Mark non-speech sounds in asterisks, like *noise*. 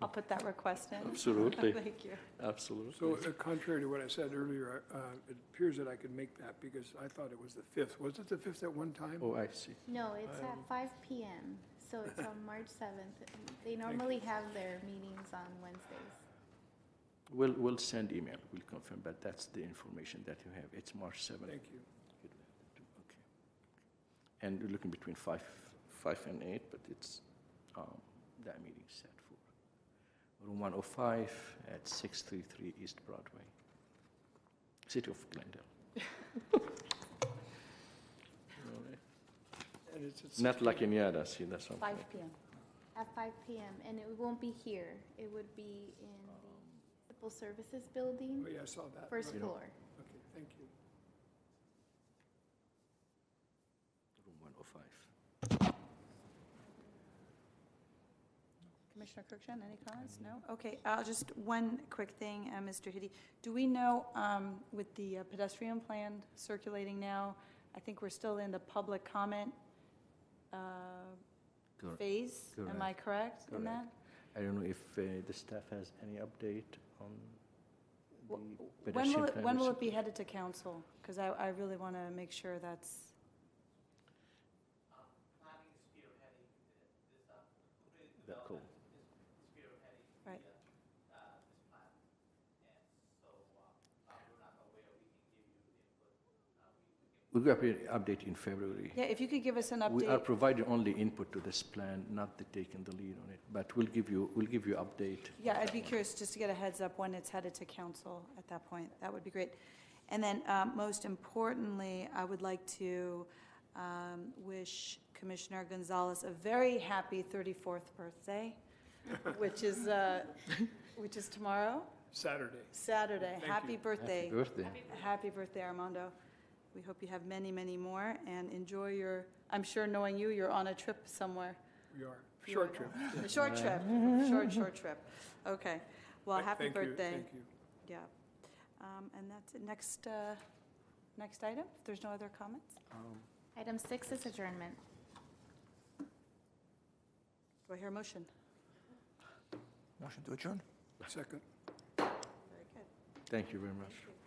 I'll put that request in. Absolutely, *laughs* Thank you. So absolutely. uh, contrary to what I said earlier, uh, it appears that I could make that because I thought it was the 5th. Was it the 5th at one time? Oh, I see. No, it's at five PM, so it's on March seventh. They normally have their meetings on Wednesdays. We'll, we'll send email, we'll confirm, but that's the information that you have. It's March 7th. Thank you. Okay. And we're looking between 5, 5 and 8, but it's, um, that meeting set for room 105 at 633 East Broadway, City of *laughs* Glendale. All right. And it's at Not La Cañada, see, that's what I'm 5 saying. PM. At five PM, and it won't be here. It would be in Um, the Civil Services Building, Oh, yeah, I saw that. first Right. floor. Okay, thank you. Room 105. Commissioner Kirkjian, any comments? No? Okay, uh, just one quick thing, uh, Mr. Hiddy. Do we know, um, with the uh, pedestrian plan circulating now, I think we're still in the public comment uh, Correct. phase? Am I correct in Correct. that? I don't know if uh, the staff has any update on Wh- the When pedestrian will, it- plan. when will which- it be headed to council? Because I, I really want to make sure that's, the call? Right. We'll update update in February. yeah, if you could give us an update. We are providing only input to this plan, not the taking the lead on it, but we'll give you, we'll give you update. on Yeah, I'd that be one. curious just to get a heads up when it's headed to council at that point. That would be great. And then, um, most importantly, I would like to um, wish Commissioner Gonzalez a very happy 34th *laughs* birthday, which is, uh, which is tomorrow, Saturday. Saturday. Thank Happy Happy you. birthday. birthday. Happy birthday, Armando. We hope you have many, many more, and enjoy your, I'm sure knowing you, you're on a trip somewhere. We are. Short trip. A short trip, short, short trip. Okay. Well, Th- happy thank you, birthday. Thank you. Yeah. Um, And that's it. Next, uh, next item, if there's no other comments? Um, Item six is adjournment. Do I hear a motion? Second. Very good. Thank you very much.